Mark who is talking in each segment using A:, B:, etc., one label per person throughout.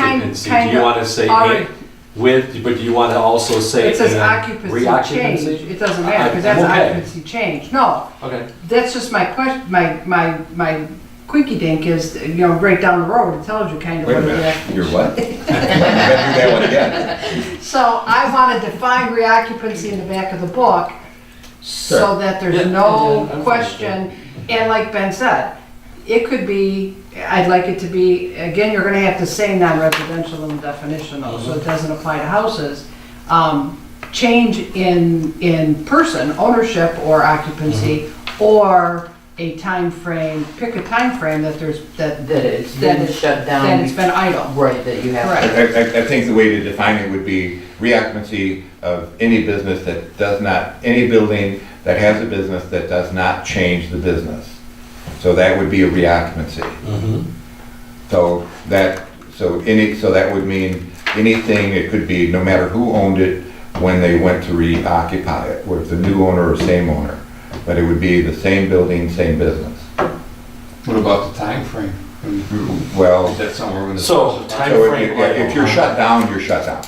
A: Occupancy, do
B: Kind-
A: you
B: kinda.
A: want to say
B: Already.
A: and with, but do you want to also say?
B: It says
A: and
B: occupancy change.
A: Reoccupancy?
B: It doesn't
A: I-
B: matter, because that's
A: I'm okay.
B: occupancy change. No,
A: Okay,
B: that's just my question, my, my, my quickie dink is, you know, right down the road, it tells you kind of
C: Wait a
B: what it
C: minute,
B: is.
C: you're what? You gotta do that one again.
B: So I want to define reoccupancy in the back of the book, so
C: Sure.
B: that
A: Yeah,
B: there's
A: yeah,
B: no
A: I'm fine with
B: question. And like Ben said, it could be, I'd like it to be, again, you're gonna have to say non-residential in the definition though, so
A: Mm-hmm.
B: it doesn't apply to houses. Um, Change in, in person, ownership or occupancy,
A: Mm-hmm.
B: or a time frame. pick a time frame that there's, that,
D: That it's
B: that
D: been
B: it's, that
D: shut down,
B: it's been idle.
D: right, that you have.
B: Right.
C: I, I, I think the way to define it would be reoccupancy of any business that does not, any building that has a business that does not change the business. So that would be a reoccupancy. So that, so any, so that would mean anything, it could be no matter who owned it when they went to reoccupy it, whether it's a new owner or same owner. But it would be the same building, same business.
E: What about the time frame?
C: Well.
E: Is that somewhere when the...
A: So, time- Uh,
C: So if, you-
A: Timeframe.
C: if you're shut down, you're shut down.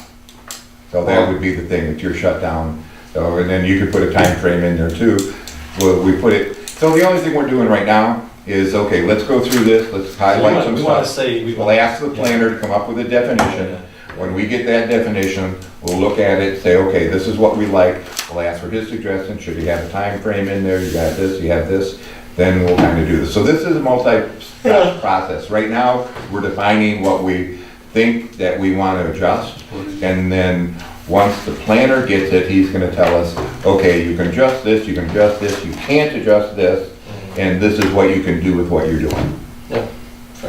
C: So that would be the thing, if you're shut down, so, and then you could put a time frame in there too. Well, we put it, so the only thing we're doing right now is, okay, let's go through this, let's highlight some
A: we want to
C: stuff.
A: say, we
C: We'll
A: want,
C: ask the planner to come up with a definition. When we get that definition, we'll look at it, say, okay, this is what we like. We'll ask for his suggestion, should you have a time frame in there, you got this, you have this, then we'll kind of do this. So this is a multi-step process. Right now, we're defining what we think that we want to adjust. And then, once the planner gets it, he's gonna tell us, okay, you can adjust this, you can adjust this, you can't adjust this, and this is what you can do with what you're doing.
A: fair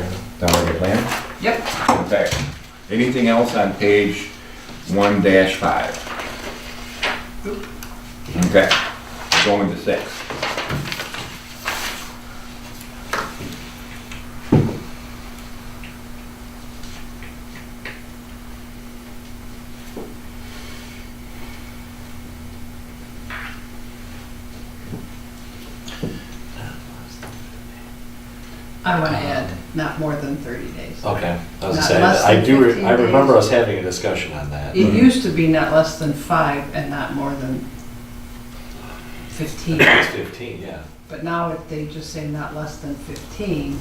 A: enough.
C: Sound like a plan?
B: Yep.
C: Okay. Anything else on page one dash five? Okay, going to six.
B: I want to add, not more than 30 days.
A: okay. I was
B: Not
A: saying,
B: less
A: I
B: than
A: do, re-
B: 15
A: I remember
B: days.
A: us having a discussion on that.
B: It used to be not less than five and not more than 15,
A: It's fifteen, yeah.
B: but now it- they just say not less than 15.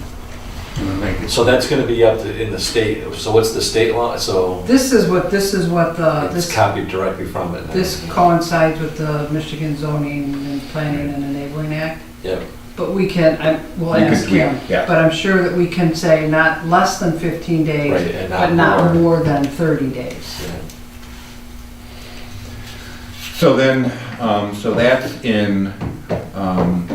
A: So that's going to be up to, in the state, so what's the state law? So
B: This is what, this is what the,
A: it's
B: Uh, this,
A: copied directly from it.
B: this coincides with the Michigan zoning and planning and enabling act,
A: Yep,
B: but we can, I, we'll
C: You could
B: ask
C: tweak,
B: him.
C: yeah.
B: But I'm sure that we can say not less than 15
A: Right,
B: days,
A: and
B: but
A: not
B: not
A: more.
B: more than 30 days.
A: yeah.
C: So then, um, so that's in, um,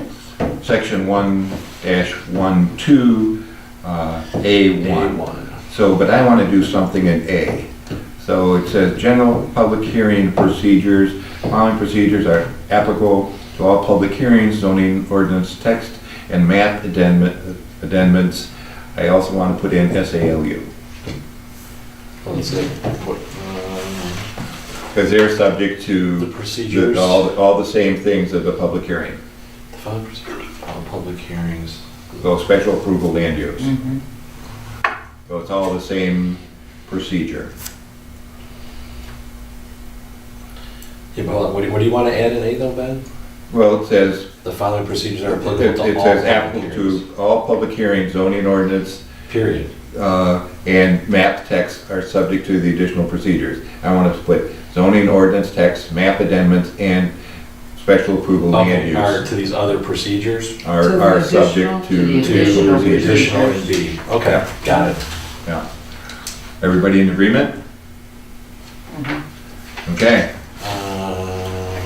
C: section one dash one two, uh, A
A: Day
C: one.
A: one.
C: So, but I wanna do something in A. So it says, general public hearing procedures, following procedures are applicable to all public hearings, zoning ordinance text, and map addendum- addendments. I also wanna put in SALU,
A: Let's see. What, um,
C: because they're subject
A: The
C: to
A: procedures.
C: the- all, all the same things of the public hearing.
A: The following procedures for all public hearings.
C: So special approval land use.
A: Mm-hmm.
C: So it's all the same procedure.
A: Yeah, but what do, what do you want to add in A though, Ben?
C: Well, it says,
A: The following procedures are
C: it
A: applicable to
C: it
A: all
C: says
A: public
C: applicable
A: hearings.
C: to all public hearings, zoning ordinance,
A: Period.
C: uh, and map text are subject to the additional procedures. I want to split zoning ordinance text, map amendments, and special approval land
A: Okay, are
C: use
A: to these other procedures?
B: To
C: are,
B: the
C: are
B: additional-
C: subject
D: to the
C: to.
A: To
D: Additional
A: the additional
D: procedures.
A: and B. Okay, got it.
C: Yeah. Everybody in agreement? Okay.
A: Um, Uh,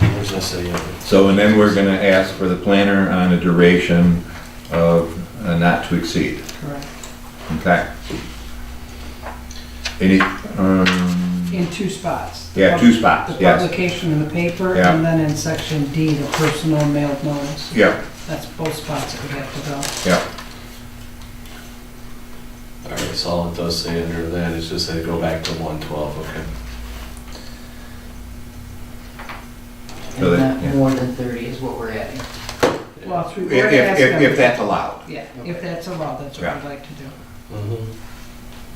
A: Where's this at?
C: So, and then we're gonna ask for the planner on a duration of uh, not to exceed,
B: Correct.
C: okay? Any, um,
B: In two spots.
C: yeah, two
B: The
C: spots, yes,
B: publication in the paper,
C: Yeah.
B: and then in section D, the personal mailed notice.
C: yeah,
B: That's both spots that we have to go.
C: yeah,
A: All right, so all it does say under that is just say go back to one twelve, okay.
C: So
D: And
C: that-
D: not
C: yeah.
D: more than thirty is what we're adding.
B: Well, if we
C: if,
B: were to ask
C: if,
B: them.
C: if that's allowed,
B: Yeah, if that's allowed, that's what
C: Yeah.
B: I'd like to do.
A: Mhm.